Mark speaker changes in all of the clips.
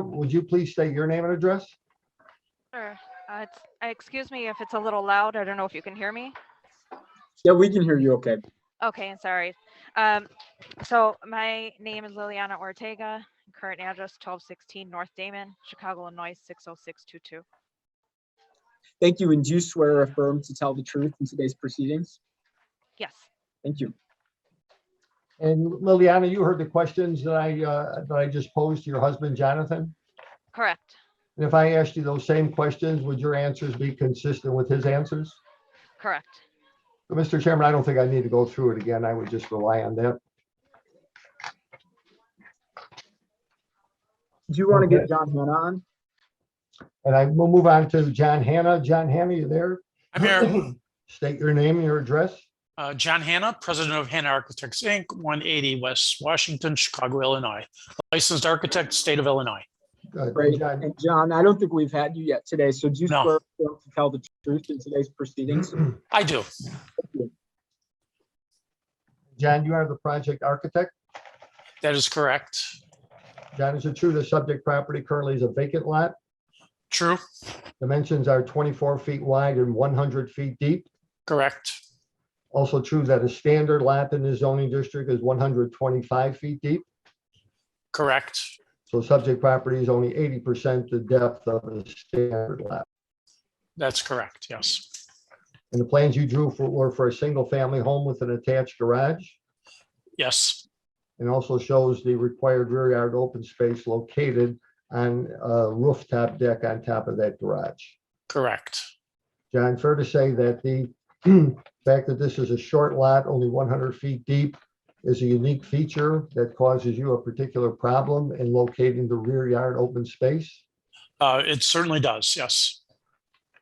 Speaker 1: would you please state your name and address?
Speaker 2: Sure. Uh, it's, uh, excuse me if it's a little loud. I don't know if you can hear me.
Speaker 3: Yeah, we can hear you okay.
Speaker 2: Okay, sorry. Um, so my name is Liliana Ortega, current address twelve sixteen North Damon, Chicago, Illinois, six oh six two two.
Speaker 3: Thank you, and do you swear or affirm to tell the truth in today's proceedings?
Speaker 2: Yes,
Speaker 3: Thank you.
Speaker 1: And Liliana, you heard the questions that I, uh, that I just posed to your husband, Jonathan?
Speaker 2: correct.
Speaker 1: And if I asked you those same questions, would your answers be consistent with his answers?
Speaker 2: Correct.
Speaker 1: But, Mr. Chairman, I don't think I need to go through it again. I would just rely on that.
Speaker 3: Do you want to get John Hannah on?
Speaker 1: And I will move on to John Hanna. John Hanna, you there?
Speaker 4: I'm here.
Speaker 1: State your name and your address.
Speaker 4: Uh, John Hanna, President of Hanna Architects, Inc., 180 West Washington, Chicago, Illinois. Licensed architect, state of Illinois.
Speaker 1: Good.
Speaker 3: Great.
Speaker 1: Uh, John,
Speaker 3: And John, I don't think we've had you yet today, so do you
Speaker 4: No.
Speaker 3: swear or affirm to tell the truth in today's proceedings?
Speaker 4: I do.
Speaker 1: John, you are the project architect.
Speaker 4: That is correct.
Speaker 1: John, is it true the subject property currently is a vacant lot?
Speaker 4: True.
Speaker 1: Dimensions are 24 feet wide and 100 feet deep.
Speaker 4: Correct.
Speaker 1: Also true that a standard lot in the zoning district is 125 feet deep.
Speaker 4: Correct.
Speaker 1: So subject property is only 80% the depth of a standard lot.
Speaker 4: That's correct. Yes.
Speaker 1: And the plans you drew for, were for a single-family home with an attached garage.
Speaker 4: Yes.
Speaker 1: And also shows the required rear yard open space located on a rooftop deck on top of that garage.
Speaker 4: Correct.
Speaker 1: John, fair to say that the fact that this is a short lot, only 100 feet deep, is a unique feature that causes you a particular problem in locating the rear yard open space?
Speaker 4: Uh, it certainly does. Yes.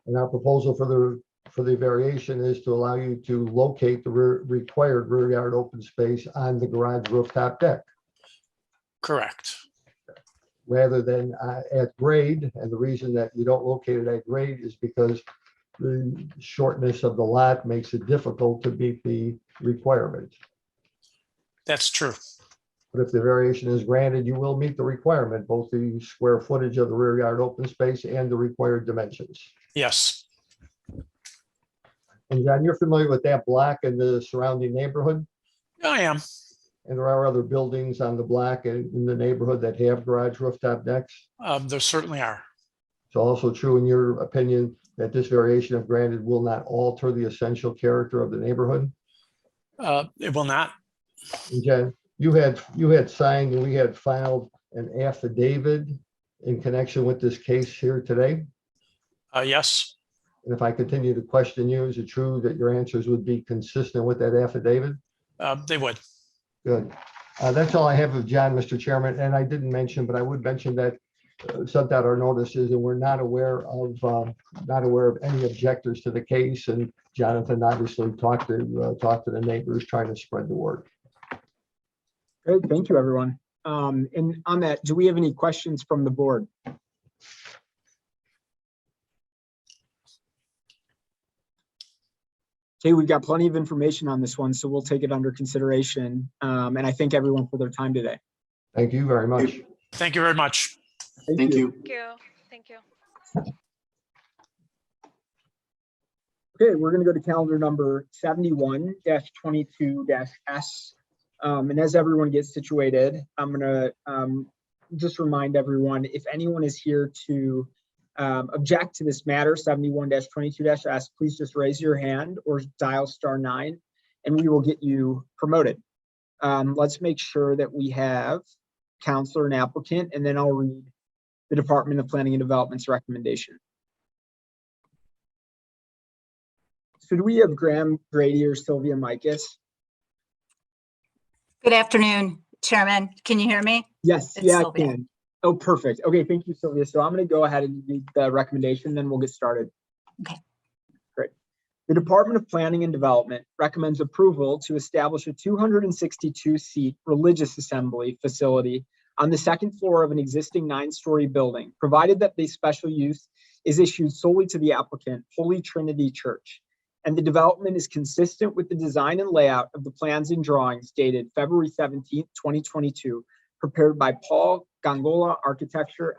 Speaker 1: And our proposal for the, for the variation is to allow you to locate the rear- required rear yard open space on the garage rooftop deck
Speaker 4: Correct.
Speaker 1: rather than uh, at grade. And the reason that you don't locate it at grade is because the shortness of the lot makes it difficult to meet the requirement.
Speaker 4: That's true.
Speaker 1: But if the variation is granted, you will meet the requirement, both the square footage of the rear yard open space and the required dimensions.
Speaker 4: Yes.
Speaker 1: And John, you're familiar with that block and the surrounding neighborhood?
Speaker 4: I am.
Speaker 1: And there are other buildings on the block and in the neighborhood that have garage rooftop decks.
Speaker 4: Uh, there certainly are.
Speaker 1: It's also true, in your opinion, that this variation of granted will not alter the essential character of the neighborhood?
Speaker 4: Uh, it will not.
Speaker 1: And Jen, you had, you had signed and we had filed an affidavit in connection with this case here today?
Speaker 4: Uh, yes.
Speaker 1: And if I continue to question you, is it true that your answers would be consistent with that affidavit?
Speaker 4: Uh, they would.
Speaker 1: Good. Uh, That's all I have of John, Mr. Chairman, and I didn't mention, but I would mention that uh, sent out our notices and we're not aware of, uh, not aware of any objectors to the case. And Jonathan obviously talked to, uh, talked to the neighbors, trying to spread the word.
Speaker 3: Great, thank you, everyone. Um, and on that, do we have any questions from the board? Okay, we've got plenty of information on this one, so we'll take it under consideration. Um, and I thank everyone for their time today.
Speaker 1: Thank you very much.
Speaker 4: Thank you very much.
Speaker 5: Thank you.
Speaker 2: Thank you. Thank you.
Speaker 3: Okay, we're gonna go to calendar number seventy-one twenty-two S. Um, and as everyone gets situated, I'm gonna, um, just remind everyone, if anyone is here to um, object to this matter, seventy-one twenty-two S, please just raise your hand or dial star nine and we will get you promoted. Um, let's make sure that we have counselor and applicant, and then I'll read the Department of Planning and Development's recommendation. So do we have Graham Grady or Sylvia Micus?
Speaker 6: Good afternoon, Chairman. Can you hear me?
Speaker 3: Yes,
Speaker 6: It's
Speaker 3: yeah, I
Speaker 6: Sylvia.
Speaker 3: can. Oh, perfect. Okay, thank you, Sylvia. So I'm going to go ahead and read the recommendation, then we'll get started.
Speaker 6: Okay.
Speaker 3: Great. The Department of Planning and Development recommends approval to establish a 262-seat religious assembly facility on the second floor of an existing nine-story building, provided that the special use is issued solely to the applicant, Holy Trinity Church. And the development is consistent with the design and layout of the plans and drawings dated February 17th, 2022, prepared by Paul Gangola Architecture